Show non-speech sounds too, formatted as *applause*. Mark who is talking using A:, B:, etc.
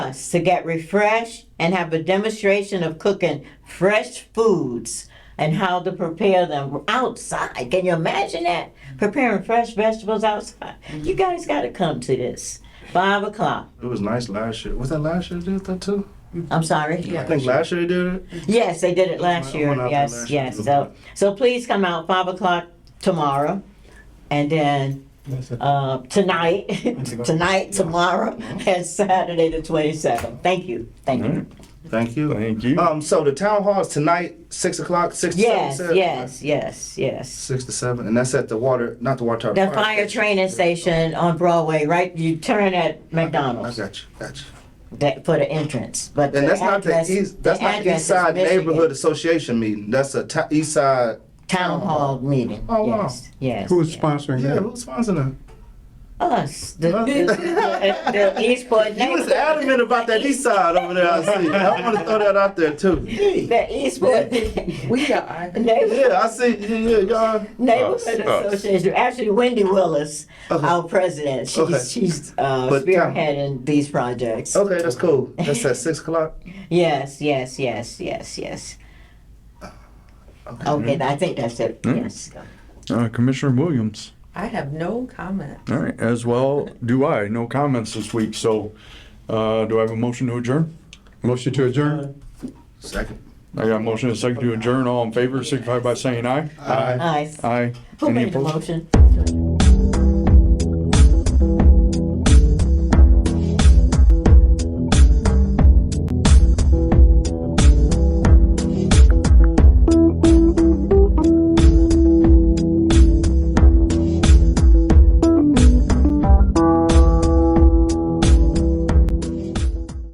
A: us to get refreshed and have a demonstration of cooking fresh foods and how to prepare them outside. Can you imagine that? Preparing fresh vegetables outside. You guys got to come to this. Five o'clock.
B: It was nice last year. Was that last year they did that too?
A: I'm sorry.
B: I think last year they did it.
A: Yes, they did it last
B: I
A: year.
B: went out there
A: Yes,
B: last year.
A: yes. So, so please come out five o'clock tomorrow, and then uh, tonight, *laughs* tonight, tomorrow, and Saturday the twenty seventh. Thank you, thank you.
B: Thank you.
C: Thank you.
B: Um, so the town hall is tonight, six o'clock, six to seven.
A: Yes,
B: said?
A: yes, yes, yes.
B: Six to seven, and that's at the water, not the water tower.
A: The fire training station on Broadway, right? You turn at
B: I
A: McDonald's
B: got you, got you.
A: that, for the entrance, but
B: And
A: the
B: that's not the
A: address,
B: east, that's
A: the
B: not the
A: address
B: East
A: is
B: Side
A: Michigan
B: Neighborhood Association meeting. That's a ta- East Side.
A: Town Hall meeting.
B: Oh, wow.
A: Yes, yes.
C: Who's
A: yes.
C: sponsoring
B: Yeah,
C: that?
B: who's sponsoring
A: Us, *laughs* the,
B: Huh? *laughs*
A: the, the, the Eastport
B: that? You was
A: neighborhood.
B: adamant about that East Side over there. I see. I want to throw that out there too.
A: The Eastport
D: We
A: *laughs*
D: are.
A: Neighborhood,
B: Yeah, I see. Yeah, yeah, y'all.
A: Neighborhood
C: us.
A: Association. Actually, Wendy Willis,
B: Okay.
A: our president, she's
B: Uh-huh. Okay.
A: she's uh,
B: But, um,
A: spearheading these projects.
B: Okay, that's cool. That's at six o'clock.
A: Yes, yes, yes, yes, yes.
B: Okay.
A: Okay, I think that's it.
C: Mm.
A: Yes.
C: Uh, Commissioner Williams.
D: I have no comment.
C: All right, as well do I. No comments this week, so uh, do I have a motion to adjourn? Motion to adjourn.
B: Second.
C: I got a motion and a second to adjourn. All in favor, signify by saying aye.
B: All right.
A: Nice.
C: Aye.
A: Who
C: Any
A: made the
C: opposed?
A: motion?